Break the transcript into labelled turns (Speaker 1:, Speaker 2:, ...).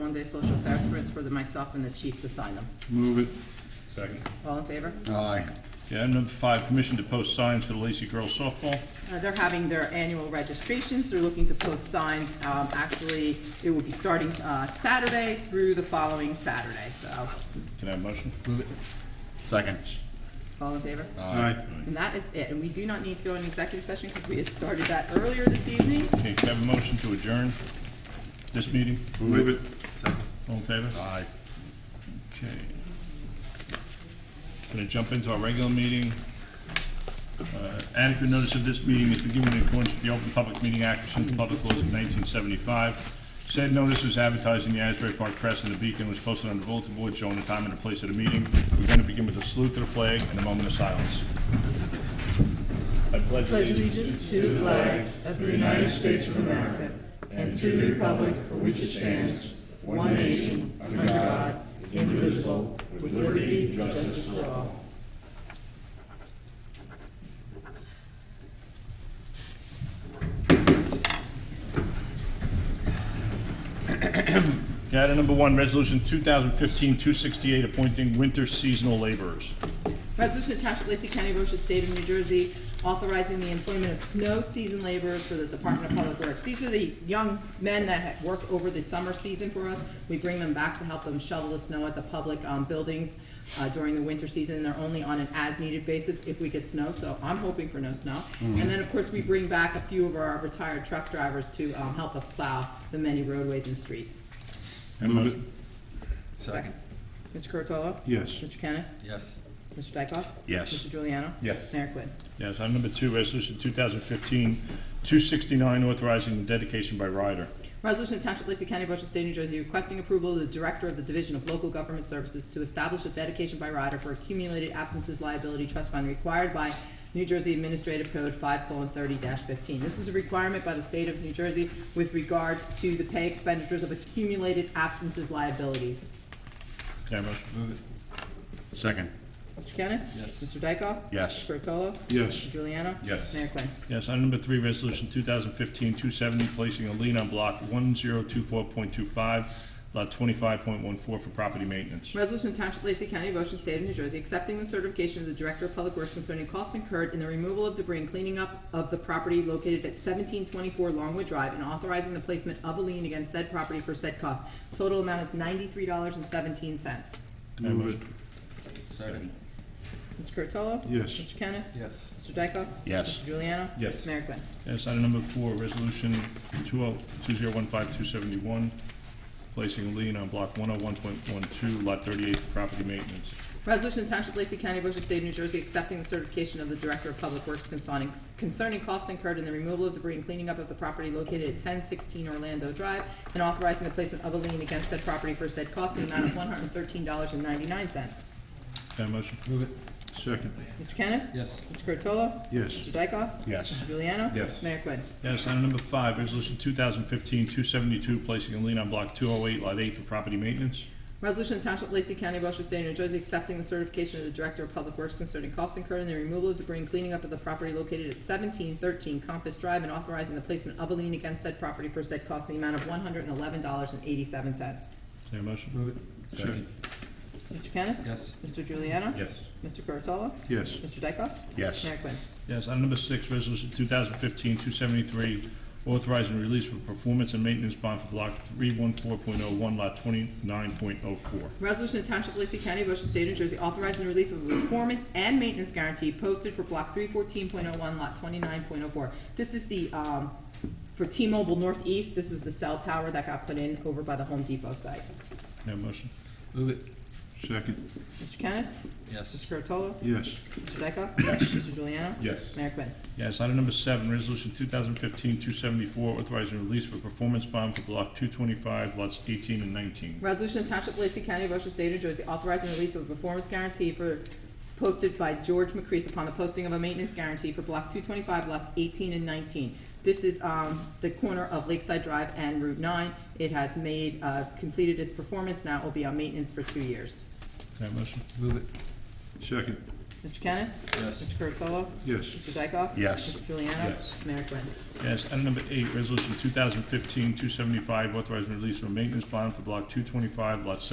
Speaker 1: one-day social passports for the- myself and the chief to sign them.
Speaker 2: Move it.
Speaker 3: Second.
Speaker 1: All in favor?
Speaker 4: Aye.
Speaker 3: Yeah, item number five, permission to post signs for the Lacey Girls softball.
Speaker 1: Uh, They're having their annual registrations, they're looking to post signs. Um, Actually, it will be starting uh, Saturday through the following Saturday, so,
Speaker 3: Can I have a motion?
Speaker 4: Second.
Speaker 1: all in favor?
Speaker 4: Aye.
Speaker 1: And that is it, and we do not need to go into executive session because we had started that earlier this evening.
Speaker 3: Okay, can I have a motion to adjourn this meeting?
Speaker 4: Move it.
Speaker 3: All in favor?
Speaker 4: Aye.
Speaker 3: Okay. Gonna jump into our regular meeting. Uh, Adequate notice of this meeting is given in accordance with the Open Public Meeting Act pursuant to public laws of nineteen seventy-five. Said notice was advertised in the Asbury Park Press and the Beacon was posted on the bulletin board showing the time and the place of the meeting. We're gonna begin with a salute to the flag and a moment of silence. I pledge
Speaker 5: pledge
Speaker 3: allegiance
Speaker 5: allegiance to the flag of the United States of America and to the republic for which it stands, one nation, under God, indivisible, with liberty and justice for all.
Speaker 3: Okay, Item number one, resolution 2015-268, appointing winter seasonal laborers.
Speaker 1: Resolution to Township of Lacey County, Ocean State of New Jersey, authorizing the employment of snow season laborers for the Department of Public Works. These are the young men that ha- work over the summer season for us. We bring them back to help them shovel the snow at the public um, buildings uh, during the winter season. and They're only on an as-needed basis if we get snow, so I'm hoping for no snow. And then, of course, we bring back a few of our retired truck drivers to um, help us plow the many roadways and streets.
Speaker 3: Move it.
Speaker 1: Second. Mr. Curatolo?
Speaker 2: Yes.
Speaker 1: Mr. Kennis?
Speaker 4: Yes.
Speaker 1: Mr. Dykoff?
Speaker 4: Yes.
Speaker 1: Mr. Juliano?
Speaker 3: Yes.
Speaker 1: Mayor Quinn.
Speaker 3: Yes, item number two, resolution 2015-269, authorizing the dedication by rider.
Speaker 1: Resolution to Township of Lacey County, Ocean State, New Jersey, requesting approval of the Director of the Division of Local Government Services to establish a dedication by rider for accumulated absences liability trust fund required by New Jersey Administrative Code five thirty fifteen. This is a requirement by the state of New Jersey with regards to the pay expenditures of accumulated absences liabilities.
Speaker 3: Can I have a motion? Move it.
Speaker 4: Second.
Speaker 1: Mr. Kennis? Yes. Mr. Dykoff?
Speaker 4: Yes.
Speaker 1: Mr. Curatolo?
Speaker 2: Yes.
Speaker 1: Mr. Juliano?
Speaker 3: Yes.
Speaker 1: Mayor Quinn.
Speaker 3: Yes, item number three, resolution 2015-270, placing a lien on block 1024.25, lot 25.14 for property maintenance.
Speaker 1: Resolution to Township of Lacey County, Ocean State of New Jersey, accepting the certification of the Director of Public Works concerning costs incurred in the removal of debris and cleaning up of the property located at seventeen twenty-four Longwood Drive and authorizing the placement of a lien against said property for said cost. Total amount is ninety-three dollars and seventeen cents.
Speaker 2: Move it.
Speaker 4: Second.
Speaker 1: Mr. Curatolo?
Speaker 2: Yes.
Speaker 1: Mr. Kennis?
Speaker 4: Yes.
Speaker 1: Mr. Dykoff?
Speaker 4: Yes.
Speaker 1: Mr. Juliano?
Speaker 3: Yes.
Speaker 1: Mayor Quinn.
Speaker 3: Yes, item number four, resolution oh, 20- 2015-271, placing a lien on block 101.12, lot 38 for property maintenance.
Speaker 1: Resolution to Township of Lacey County, Ocean State, New Jersey, accepting the certification of the Director of Public Works concerning, concerning costs incurred in the removal of debris and cleaning up of the property located at ten sixteen Orlando Drive, and authorizing the placement of a lien against said property for said cost in the amount of one hundred and thirteen dollars and ninety-nine cents.
Speaker 3: Can I have a motion?
Speaker 2: Move it. Second.
Speaker 1: Mr. Kennis?
Speaker 4: Yes.
Speaker 1: Mr. Curatolo?
Speaker 2: Yes.
Speaker 1: Mr. Dykoff?
Speaker 4: Yes.
Speaker 1: Mr. Juliano?
Speaker 3: Yes.
Speaker 1: Mayor Quinn.
Speaker 3: Yes, item number five, resolution 2015-272, placing a lien on block 208, lot 8 for property maintenance.
Speaker 1: Resolution of Township of Lacey County, Ocean State, New Jersey, accepting the certification of the Director of Public Works concerning costs incurred in the removal of debris and cleaning up of the property located at seventeen thirteen Compass Drive and authorizing the placement of a lien against said property for said cost in the amount of one hundred and eleven dollars and eighty-seven cents.
Speaker 3: Is there a motion?
Speaker 2: Move it. Second.
Speaker 1: Mr. Kennis?
Speaker 4: Yes.
Speaker 1: Mr. Juliano?
Speaker 3: Yes.
Speaker 1: Mr. Curatolo?
Speaker 2: Yes.
Speaker 1: Mr. Dykoff?
Speaker 4: Yes.
Speaker 1: Mayor Quinn.
Speaker 3: Yes, item number six, resolution 2015-273, authorizing release for performance and maintenance bond for block 314.01, lot 29.04.
Speaker 1: Resolution of Township of Lacey County, Ocean State, New Jersey, authorizing the release of a performance and maintenance guarantee posted for block three fourteen point oh one, lot twenty-nine point oh four. This is the, um, for T-Mobile Northeast, this was the cell tower that got put in over by the Home Depot site.
Speaker 3: Can I have a motion?
Speaker 4: Move it.
Speaker 2: Second.
Speaker 1: Mr. Kennis?
Speaker 4: Yes.
Speaker 1: Mr. Curatolo?
Speaker 2: Yes.
Speaker 1: Mr. Dykoff? Yes. Mr. Juliano?
Speaker 3: Yes.
Speaker 1: Mayor Quinn.
Speaker 3: Yes, item number seven, resolution 2015-274, authorizing release for performance bond for block 225, lots 18 and 19.
Speaker 1: Resolution of Township of Lacey County, Ocean State, New Jersey, authorizing the release of a performance guarantee for, posted by George McCrease upon the posting of a maintenance guarantee for block two twenty-five, lots eighteen and nineteen. This is, um, the corner of Lakeside Drive and Route nine. It has made, uh, completed its performance, now it will be on maintenance for two years.
Speaker 3: Can I have a motion?
Speaker 2: Move it. Second.
Speaker 1: Mr. Kennis?
Speaker 4: Yes.
Speaker 1: Mr. Curatolo?
Speaker 2: yes,
Speaker 1: Mr. Dykoff?
Speaker 4: Yes.
Speaker 1: Mr. Juliano?
Speaker 3: Yes.
Speaker 1: Mayor Quinn.
Speaker 3: Yes, item number eight, resolution 2015-275, authorizing release of a maintenance bond for block 225, lot